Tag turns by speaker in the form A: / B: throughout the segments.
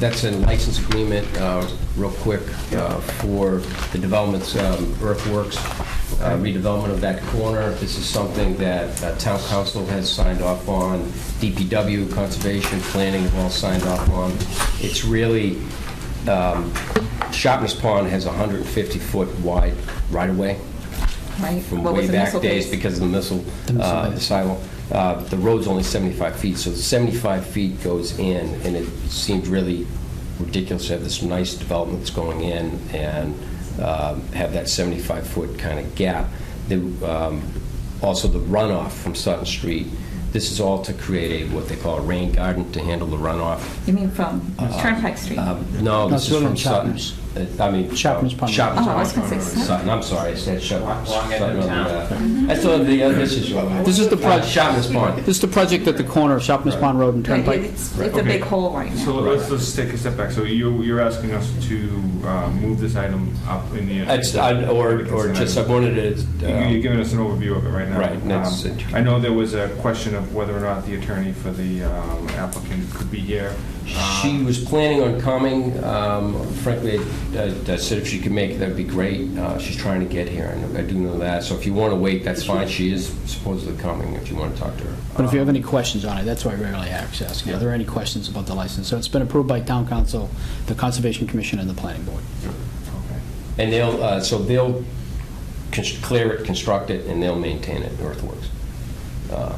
A: That's a license agreement, uh, real quick, uh, for the developments, um, earthworks, uh, redevelopment of that corner. This is something that uh, town council has signed off on, DPW, conservation, planning have all signed off on. It's really, um, Shopner's Pond has 150-foot wide right-of-way
B: Right?
A: from
B: What was
A: way
B: the
A: back
B: missile
A: days
B: case?
A: because of the missile, uh, the silo. Uh, The road's only 75 feet, so the 75 feet goes in, and it seemed really ridiculous to have this nice development that's going in and um, have that 75-foot kind of gap. The, um, Also, the runoff from Sutton Street, this is all to create a, what they call a rain garden to handle the runoff
B: You mean from Turnpike Street?
A: um, No, this
C: it's
A: is from
C: William
A: Sutton's.
C: Chapman's.
A: Uh, I mean...
C: Chapman's Pond.
A: Chapman's
B: Oh, I was
A: Pond.
B: gonna say
A: Sutton, I'm sorry, I said Chapman's.
D: Wrong end of
A: Sutton,
D: town.
A: uh, I saw the, uh, this is...
C: This is the
A: Uh,
C: project,
A: Chapman's Pond.
C: this is the project at the corner of Shopness Pond Road and
B: Right,
C: Turnpike.
B: It's it's a
D: Okay.
B: big hole right
D: So
B: now.
D: let's, let's take a step back. So you, you're asking us to uh, move this item up in the.
A: It's, I- or, or just, I wanted
D: You-
A: to... uh,
D: You're giving us an overview of it right now.
A: Right, and that's-
D: Um, I know there was a question of whether or not the attorney for the um, applicant could be here. Uh,
A: She was planning on coming. Um, Frankly, I I said if she could make it, that'd be great. Uh, She's trying to get here, I know- I do know that. So if you want to wait, that's fine. She is supposedly coming if you want to talk to her.
C: But if you have any questions on it, that's why I rarely ask, ask, are there any questions about the license? So it's been approved by town council, the conservation commission, and the planning board.
D: Okay.
A: And they'll, uh, so they'll cons- clear it, construct it, and they'll maintain it, Earthworks. Uh,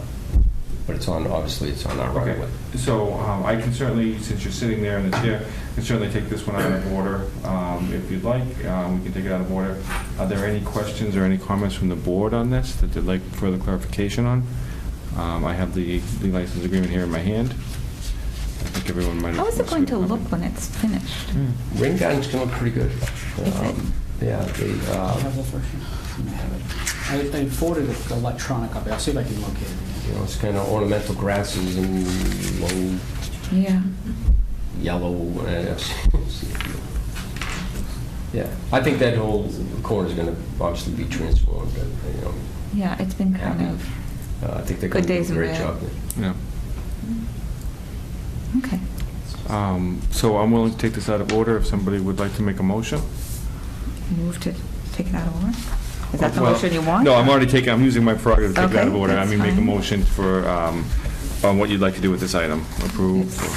A: But it's on, obviously, it's on our right of
D: Okay,
A: way.
D: so um, I can certainly, since you're sitting there in the chair, can certainly take this one out of order um, if you'd like. Um, We can take it out of order. Are there any questions or any comments from the board on this that they'd like further clarification on? Um, I have the the license agreement here in my hand. I think everyone might have...
B: How is it going to look when it's finished?
A: Ring gardens can look pretty good. Um, Yeah, they,
C: I
A: uh,
C: have the first one. I have it. I I forwarded it electronic copy, I'll see if I can locate it.
A: you know, it's kind of ornamental grasses and low
B: Yeah.
A: yellow. uh, Yeah, I think that whole corner's going to obviously be transformed, but, you know,
B: Yeah, it's been kind
A: Happy.
B: of,
A: uh, I think they're
B: Good
A: going to
B: days
A: do a
B: and
A: great
B: bad.
A: job.
D: Yeah.
B: okay.
D: Um, So I'm willing to take this out of order if somebody would like to make a motion.
B: Move to take it out of order? Is that the
D: Well,
B: motion you want?
D: No, I'm already taking, I'm using my prerogative to take it out of
B: Okay,
D: order. I
B: that's
D: mean, make a
B: fine.
D: motion for, um, on what you'd like to do with this item. Approve. or-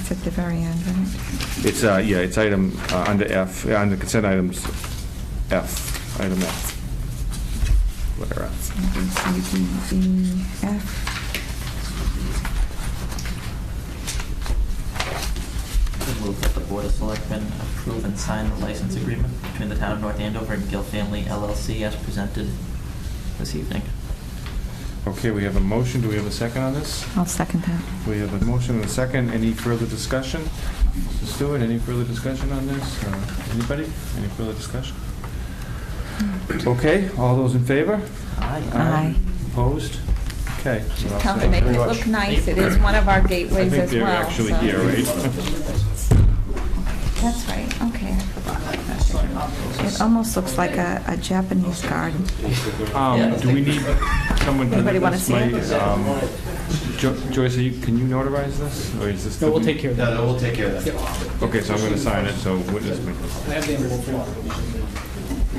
B: It's at the very end, right?
D: It's, uh, yeah, it's item uh, under F, uh, under consent items, F, item F. Letter F.
B: B, C, D, E, F.
E: I Move that the Board of Selectmen approve and sign the license agreement between the town of North Andover and Gill Family LLC as presented this evening.
D: Okay, we have a motion. Do we have a second on this?
B: I'll second that.
D: We have a motion and a second. Any further discussion? Mr. Stewart, any further discussion on this? Uh, Anybody? Any further discussion?
B: Hmm.
D: Okay, all those in favor?
E: Aye.
B: Aye.
D: Opposed? Okay. we're all
B: Town
D: set.
B: to make it
D: Very much.
B: look nice. It is one of our
D: I
B: gateways
D: think
B: as
D: they're
B: well.
D: actually
B: so-
D: here, right?
B: That's right, okay. It almost looks like a a Japanese garden.
D: Um, do we need someone to...
B: Anybody wanna see it?
D: this might, um, Jo- Joyce, are you, can you notarize this, or is this?
C: No, we'll
D: the-
C: take care of that.
F: we'll take care of that.
D: Okay, so I'm gonna sign it, so witness me.
C: I have the envelope for it.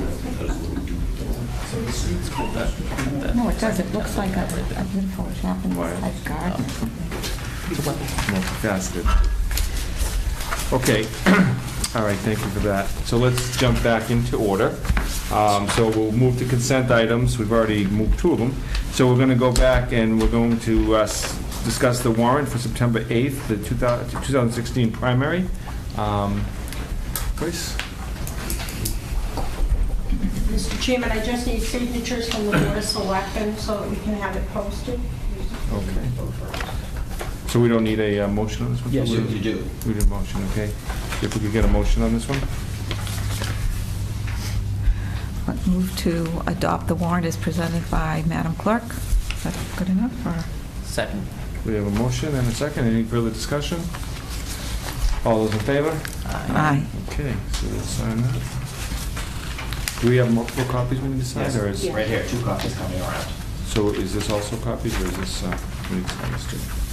B: No, it does, it looks like a a beautiful Japanese-type garden.
D: Multifaceted. Okay, all right, thank you for that. So let's jump back into order. Um, So we'll move to consent items, we've already moved two of them. So we're gonna go back and we're going to uh, s- discuss the warrant for September 8th, the 2000 2016 primary. Um, Joyce?
G: Mr. Chairman, I just need signatures from the Board of Selectmen so that we can have it posted.
D: Okay. So we don't need a uh, motion on this one?
C: Yes,
F: You you do.
D: We need a motion, okay. If we could get a motion on this one?
B: Let's Move to adopt the warrant as presented by Madam Clerk. Is that good enough, or?
E: Second.
D: We have a motion and a second. Any further discussion? All those in favor?
B: Aye.
D: Okay, so we'll sign that. Do we have multiple copies we need to sign, or is,
F: Right here, two copies coming around.
D: so is this also copies, or is this, uh, we need to sign this too?